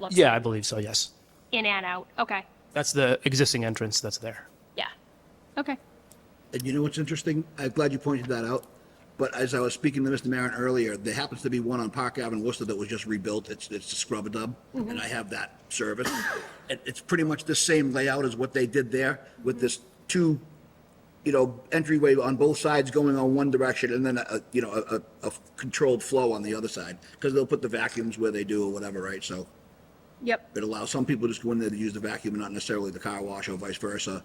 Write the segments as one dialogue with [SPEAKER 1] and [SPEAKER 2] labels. [SPEAKER 1] looks
[SPEAKER 2] Yeah, I believe so, yes.
[SPEAKER 1] in and out. Okay.
[SPEAKER 2] That's the existing entrance that's there.
[SPEAKER 1] Yeah. Okay.
[SPEAKER 3] And you know what's interesting? I'm glad you pointed that out. But as I was speaking to Mr. Marin earlier, there happens to be one on Park Avenue, Worcester, that was just rebuilt. It's, it's a scrub a dub, and I have that service. And it's pretty much the same layout as what they did there with this two, you know, entryway on both sides going on one direction and then a, a- you know, a, a- a controlled flow on the other side. Because they'll put the vacuums where they do or whatever, right? So
[SPEAKER 1] Yep.
[SPEAKER 3] it allows some people to just go in there to use the vacuum and not necessarily the car wash or vice versa.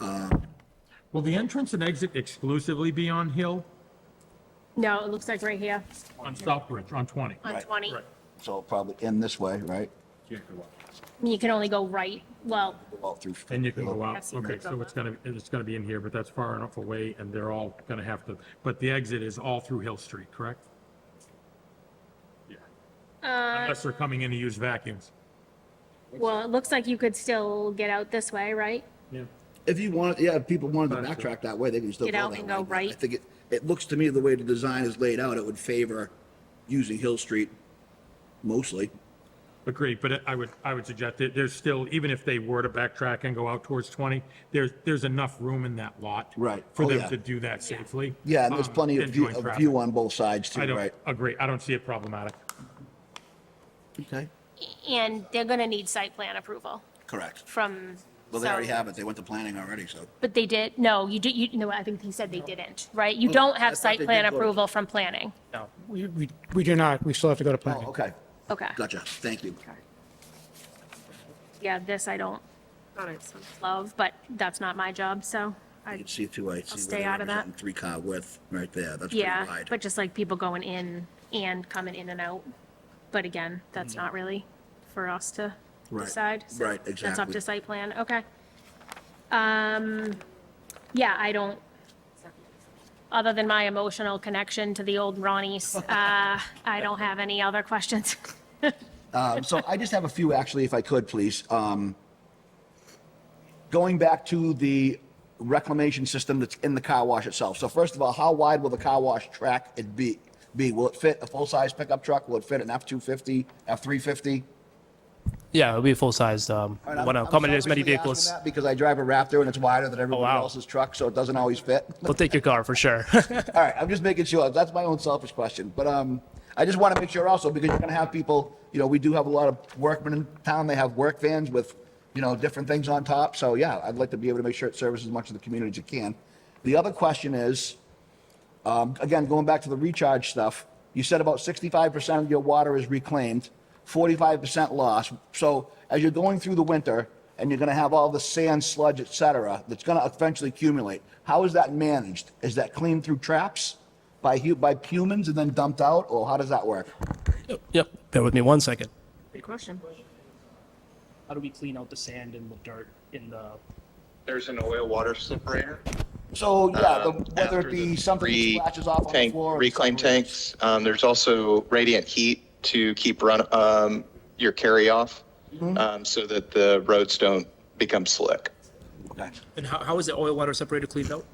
[SPEAKER 4] Will the entrance and exit exclusively be on Hill,
[SPEAKER 1] No, it looks like right here
[SPEAKER 4] on Southbridge, on 20?
[SPEAKER 1] on 20.
[SPEAKER 3] So it'll probably end this way, right?
[SPEAKER 1] You can only go right. Well,
[SPEAKER 3] Go out through.
[SPEAKER 4] Then you can go out.
[SPEAKER 1] Yes, you
[SPEAKER 4] Okay,
[SPEAKER 1] can go
[SPEAKER 4] so it's
[SPEAKER 1] out.
[SPEAKER 4] gonna, it's gonna be in here, but that's far enough away and they're all gonna have to, but the exit is all through Hill Street, correct? Yeah.
[SPEAKER 1] Uh,
[SPEAKER 4] Unless they're coming in to use vacuums.
[SPEAKER 1] well, it looks like you could still get out this way, right?
[SPEAKER 4] Yeah.
[SPEAKER 3] If you want, yeah, if people wanted to
[SPEAKER 4] That's true.
[SPEAKER 3] backtrack that way, they can still go
[SPEAKER 1] Get
[SPEAKER 3] that
[SPEAKER 1] out
[SPEAKER 3] way.
[SPEAKER 1] and go
[SPEAKER 3] but I
[SPEAKER 1] right.
[SPEAKER 3] think it, it looks to me the way the design is laid out, it would favor using Hill Street mostly.
[SPEAKER 4] Agreed, but I would, I would suggest that there's still, even if they were to backtrack and go out towards 20, there's, there's enough room in that lot.
[SPEAKER 3] Right.
[SPEAKER 4] For
[SPEAKER 3] Oh,
[SPEAKER 4] them
[SPEAKER 3] yeah.
[SPEAKER 4] to do that safely.
[SPEAKER 3] Yeah, and there's
[SPEAKER 4] um,
[SPEAKER 3] plenty of
[SPEAKER 4] and
[SPEAKER 3] view,
[SPEAKER 4] join
[SPEAKER 3] of
[SPEAKER 4] traffic.
[SPEAKER 3] view on both sides
[SPEAKER 4] I
[SPEAKER 3] too,
[SPEAKER 4] don't,
[SPEAKER 3] right?
[SPEAKER 4] agree, I don't see it problematic.
[SPEAKER 3] Okay.
[SPEAKER 1] And they're going to need site plan approval
[SPEAKER 3] Correct.
[SPEAKER 1] from.
[SPEAKER 3] Well, they
[SPEAKER 1] so-
[SPEAKER 3] already have it. They went to planning already, so.
[SPEAKER 1] But they did, no, you did, you, no, I think he said they didn't, right? You don't
[SPEAKER 3] Oh, I
[SPEAKER 1] have
[SPEAKER 3] thought
[SPEAKER 1] site
[SPEAKER 3] they
[SPEAKER 1] plan
[SPEAKER 3] did go to-
[SPEAKER 1] approval from planning.
[SPEAKER 2] No.
[SPEAKER 5] We, we, we do not, we still have to go to
[SPEAKER 3] Oh,
[SPEAKER 5] planning.
[SPEAKER 3] okay.
[SPEAKER 1] Okay.
[SPEAKER 3] Gotcha. Thank you.
[SPEAKER 1] Yeah, this I don't love, but that's not my job, so
[SPEAKER 3] You
[SPEAKER 1] I,
[SPEAKER 3] can see through, I see. where
[SPEAKER 1] stay
[SPEAKER 3] they're
[SPEAKER 1] out of that.
[SPEAKER 3] representing Three car width right there. That's pretty
[SPEAKER 1] yeah,
[SPEAKER 3] wide.
[SPEAKER 1] but just like people going in and coming in and out. But again, that's not really for us to
[SPEAKER 3] Right,
[SPEAKER 1] decide. so
[SPEAKER 3] right,
[SPEAKER 1] That's up
[SPEAKER 3] exactly.
[SPEAKER 1] to site plan, okay. Um, yeah, I don't, other than my emotional connection to the old Ronnie's, uh, I don't have any other questions.
[SPEAKER 3] Um, so I just have a few actually, if I could, please. Um, going back to the reclamation system that's in the car wash itself. So first of all, how wide will the car wash track it be? Be, will it fit a full-size pickup truck? Will it fit an F-250, F-350?
[SPEAKER 2] Yeah, it'll be a full-sized, um, want to accommodate as many vehicles. Oh,
[SPEAKER 3] Because I drive a Raptor and it's wider than everyone
[SPEAKER 2] wow.
[SPEAKER 3] else's truck, so it doesn't always fit.
[SPEAKER 2] They'll take your car for sure.
[SPEAKER 3] All right, I'm just making sure. That's my own selfish question, but um, I just want to make sure also because you're going to have people. You know, we do have a lot of workmen in town. They have work vans with, you know, different things on top. So yeah, I'd like to be able to make sure it serves as much of the community as it can. The other question is, um, again, going back to the recharge stuff. You said about 65% of your water is reclaimed, 45% lost. So as you're going through the winter and you're going to have all the sand, sludge, et cetera, that's going to eventually accumulate, how is that managed? Is that cleaned through traps by, hu- by humans and then dumped out, or how does that work?
[SPEAKER 2] Yep, bear with me one second.
[SPEAKER 1] Good question.
[SPEAKER 6] how do we clean out the sand and the dirt in the
[SPEAKER 7] There's an oil water separator.
[SPEAKER 3] So, yeah, the-
[SPEAKER 7] um,
[SPEAKER 3] Uh, whether
[SPEAKER 7] after
[SPEAKER 3] it be
[SPEAKER 7] the
[SPEAKER 3] something that
[SPEAKER 7] three
[SPEAKER 3] splashes off on the
[SPEAKER 7] tank-
[SPEAKER 3] floor. or
[SPEAKER 7] Reclaim
[SPEAKER 3] something-
[SPEAKER 7] tanks. Um, there's also radiant heat to keep run, um, your carry off,
[SPEAKER 3] Mm-hmm.
[SPEAKER 7] um, so that the roads don't become slick.
[SPEAKER 3] Okay.
[SPEAKER 2] And how, how is the oil water separator cleaned out?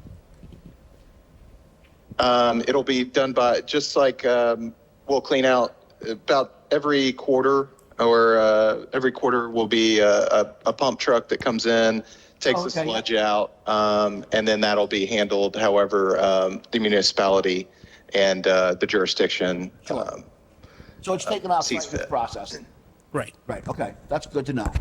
[SPEAKER 7] Um, it'll be done by, just like, um, we'll clean out about every quarter or, uh, every quarter will be a, a, a pump truck that comes in, takes the
[SPEAKER 3] Okay, yeah.
[SPEAKER 7] sludge out, um, and then that'll be handled however, um, the municipality and, uh, the jurisdiction,
[SPEAKER 3] Sure.
[SPEAKER 7] um,
[SPEAKER 3] So it's taken off
[SPEAKER 7] Uh, Sees
[SPEAKER 3] right with
[SPEAKER 7] fit.
[SPEAKER 3] processing.
[SPEAKER 2] Right.
[SPEAKER 3] Right, okay, that's good to know.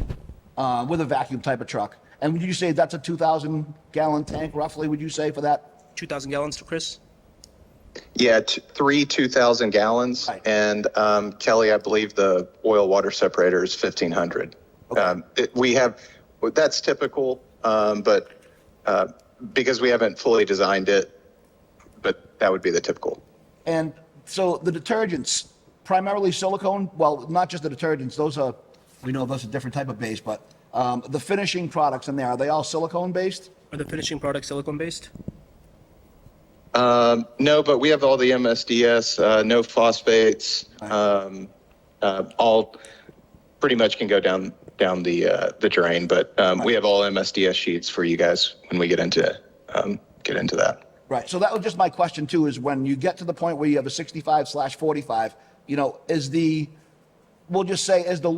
[SPEAKER 3] Uh, with a vacuum type of truck. And would you say that's a 2,000 gallon tank roughly, would you say for that?
[SPEAKER 2] 2,000 gallons, Chris?
[SPEAKER 7] Yeah, t- three 2,000 gallons.
[SPEAKER 3] Right.
[SPEAKER 7] And um, Kelly, I believe the oil water separator is 1,500. Um, it, we have, well, that's typical, um, but uh, because we haven't fully designed it, but that would be the typical.
[SPEAKER 3] And so the detergents, primarily silicone, well, not just the detergents, those are, we know those are different type of base, but um, the finishing products in there, are they all silicone based?
[SPEAKER 2] Are the finishing products silicone-based?
[SPEAKER 7] Um, no, but we have all the MSDS, uh, no phosphates, um, uh, all pretty much can go down down the uh, the drain. But um, we have all MSDS sheets for you guys when we get into um, get into that.
[SPEAKER 3] Right, so that was just my question too, is when you get to the point where you have a 65 slash 45, you know, is the, we'll just say, is the